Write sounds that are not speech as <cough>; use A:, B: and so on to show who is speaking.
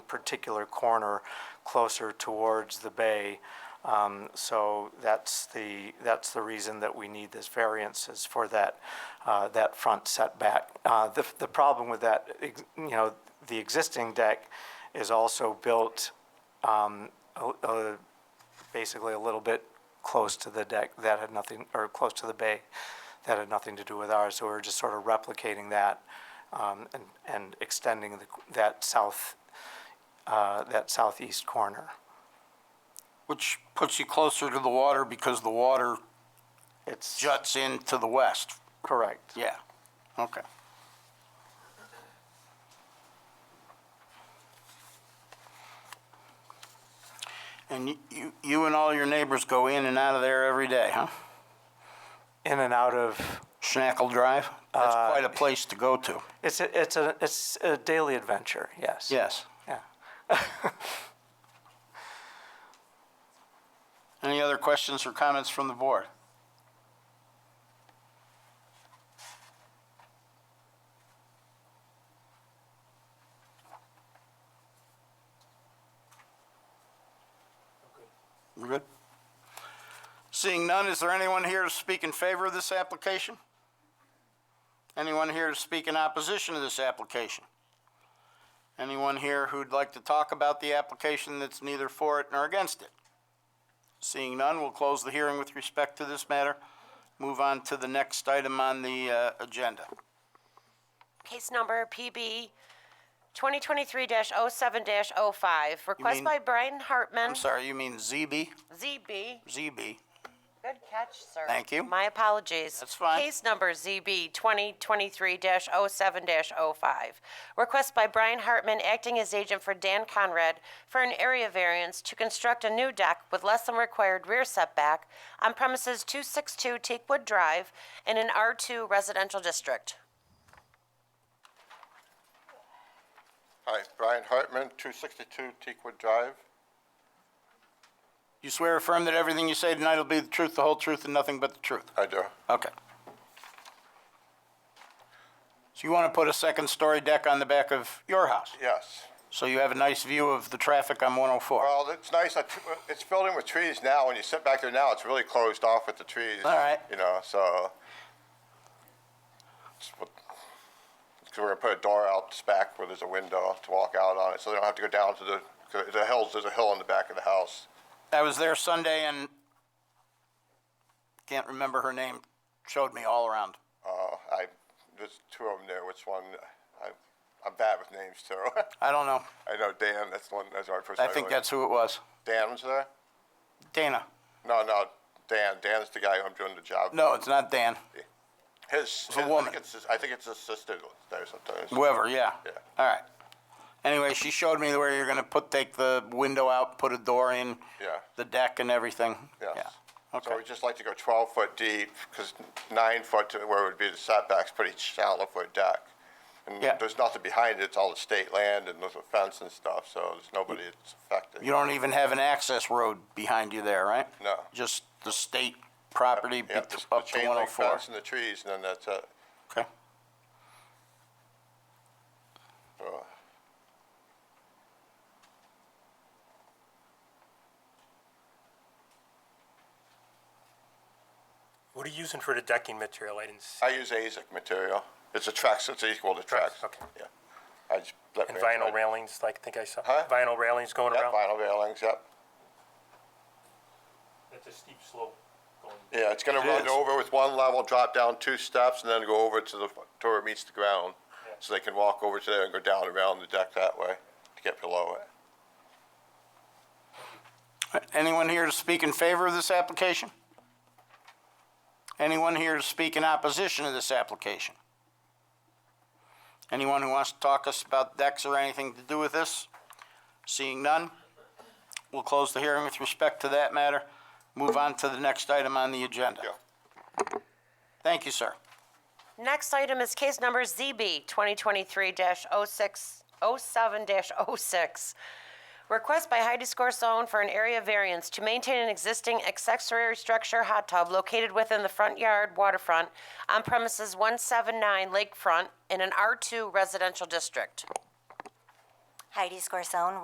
A: particular corner closer towards the bay. Um, So that's the, that's the reason that we need this variance is for that, uh, that front setback. Uh, The, the problem with that, ex- you know, the existing deck is also built um, a- a- basically a little bit close to the deck that had nothing, or close to the bay, that had nothing to do with ours. So we we're just sort of replicating that um, and, and extending the, that south, uh, that southeast corner.
B: Which puts you closer to the water because the water
A: It's
B: juts in to the west.
A: correct.
B: Yeah, okay. And y- you, you and all your neighbors go in and out of there every day, huh?
A: In and out of,
B: Schnackle Drive? That's quite a place to go to.
A: it's a, it's a, it's a daily adventure, yes.
B: Yes.
A: Yeah.
B: Any other questions or comments from the board? We're good? Seeing none, is there anyone here to speak in favor of this application? Anyone here to speak in opposition to this application? Anyone here who'd like to talk about the application that's neither for it nor against it? Seeing none, we'll close the hearing with respect to this matter. Move on to the next item on the uh, agenda.
C: Case number PB 2023-07-05, request
B: mean-
C: by Brian Hartman,
B: I'm sorry, you mean ZB?
C: ZB.
B: ZB.
C: Good catch, sir.
B: Thank you.
C: My apologies.
B: That's fine.
C: Case number ZB 2023-07-05, request by Brian Hartman, acting as agent for Dan Conrad, for an area variance to construct a new deck with less than required rear setback on premises 262 Teakwood Drive in an R2 residential district.
D: Hi, Brian Hartman, 262 Teakwood Drive.
B: You swear or affirm that everything you say tonight will be the truth, the whole truth, and nothing but the truth?
D: I do.
B: Okay. So you want to put a second-story deck on the back of your house,
D: Yes.
B: so you have a nice view of the traffic on 104? All
D: Well, it's nice. that- It's filled in with trees now. When you sit back there now, it's really closed off with the trees.
B: All right.
D: You know, so. it's what- 'cause we're gonna put a door out this back where there's a window to walk out on it, so they don't have to go down to the, 'cause the hills, there's a hill in the back of the house.
B: I was there Sunday, and can't remember her name, showed me all around.
D: Uh, I, there's two of them there. Which one? I, I'm bad with names too.
B: I don't know.
D: <laughs> I know Dan, that's the one, that's our first.
B: I think that's who it was.
D: Dan was there?
B: Dana.
D: No, no, Dan. Dan's the guy who I'm doing the job.
B: No, it's not Dan.
D: His, his- I
B: woman.
D: think it's his, I think it's his sister there sometimes.
B: Whoever, yeah.
D: Yeah.
B: All right. Anyway, she showed me where you're gonna put, take the window out, put a door in.
D: Yeah.
B: The deck and everything.
D: Yes.
B: Yeah.
D: So
B: Okay.
D: we just like to go 12 foot deep because nine foot to where it would be the setbacks, pretty shallow for a deck. And
B: Yeah.
D: there's nothing behind it. It's all the state land and there's a fence and stuff. So there's nobody that's affected.
B: You don't even have an access road behind you there, right?
D: No.
B: Just the state property
D: yeah,
B: bet-
D: just the
B: up to
D: chain link
B: 104.
D: fence and the trees, and then that's it.
B: Okay.
D: So,
E: What are you using for the decking material? I didn't see.
D: I use ASIC material. It's a Trex. It's equal to Trex.
E: Trex, okay.
D: Yeah. I just let
E: And
D: me-
E: vinyl railings, like I think I saw.
D: Huh?
E: Vinyl railings going
D: Yeah,
E: around?
D: vinyl railings. Yep.
E: It's a steep slope going.
D: Yeah, it's gonna
B: It
D: run
B: is.
D: over with one level, drop down two steps, and then go over to the, to where it meets the ground. So they can walk over to there and go down around the deck that way to get below it.
B: Anyone here to speak in favor of this application? Anyone here to speak in opposition to this application? Anyone who wants to talk us about decks or anything to do with this? Seeing none, we'll close the hearing with respect to that matter. Move on to the next item on the agenda.
D: Yeah.
B: Thank you, sir.
C: Next item is case number ZB 2023-06-07-06. Request by Heidi Scorsone for an area variance to maintain an existing accessory structure hot tub located within the front yard waterfront on premises 179 Lakefront in an R2 residential district.
F: Heidi Scorsone,